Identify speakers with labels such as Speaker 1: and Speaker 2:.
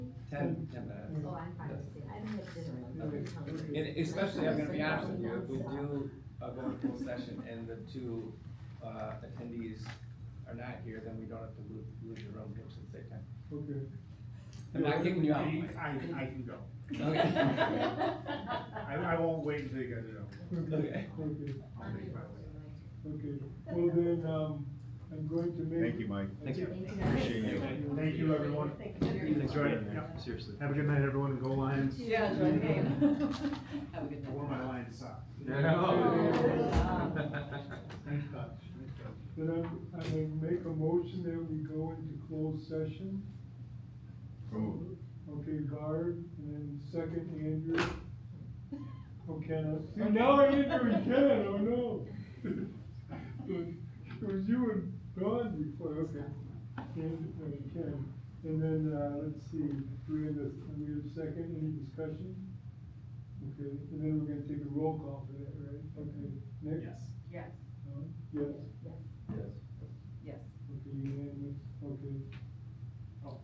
Speaker 1: ten, ten minutes.
Speaker 2: Oh, I'm fine with it. I don't have dinner. I'm really hungry.
Speaker 1: And especially, I'm gonna be honest with you, if we do a going full session and the two, uh, attendees are not here, then we don't have to lose, lose your own pitch at the same time.
Speaker 3: Okay.
Speaker 1: I'm not kicking you out. Mike.
Speaker 4: I, I can go.
Speaker 1: Okay.
Speaker 4: I, I won't wait until you guys are done.
Speaker 3: Okay,
Speaker 1: Okay.
Speaker 3: okay,
Speaker 4: I'll make my way.
Speaker 3: okay. Well then, um, I'm going to make.
Speaker 5: Thank you, Mike.
Speaker 1: Thank you.
Speaker 2: Thank you.
Speaker 5: Appreciate you.
Speaker 4: Thank you, everyone. Enjoy it.
Speaker 5: Yeah,
Speaker 4: Yep.
Speaker 5: Seriously.
Speaker 4: Have a good night, everyone, and go Lions.
Speaker 6: Yeah, enjoy the game. Have a good
Speaker 4: I
Speaker 6: night.
Speaker 4: wore my Lions sock.
Speaker 3: Nice touch. Then I'm, I'm gonna make a motion that we go into closed session.
Speaker 5: Ooh.
Speaker 3: Okay, guard, and then second, Andrew. Oh, Kenneth. Oh, now Andrew and Kenneth, oh no. It was you and Don before, okay. And, and Ken. And then, uh, let's see, do we have a, do we have a second, any discussion? Okay, and then we're gonna take a roll call for that, right? Okay, Nick?
Speaker 4: Yes.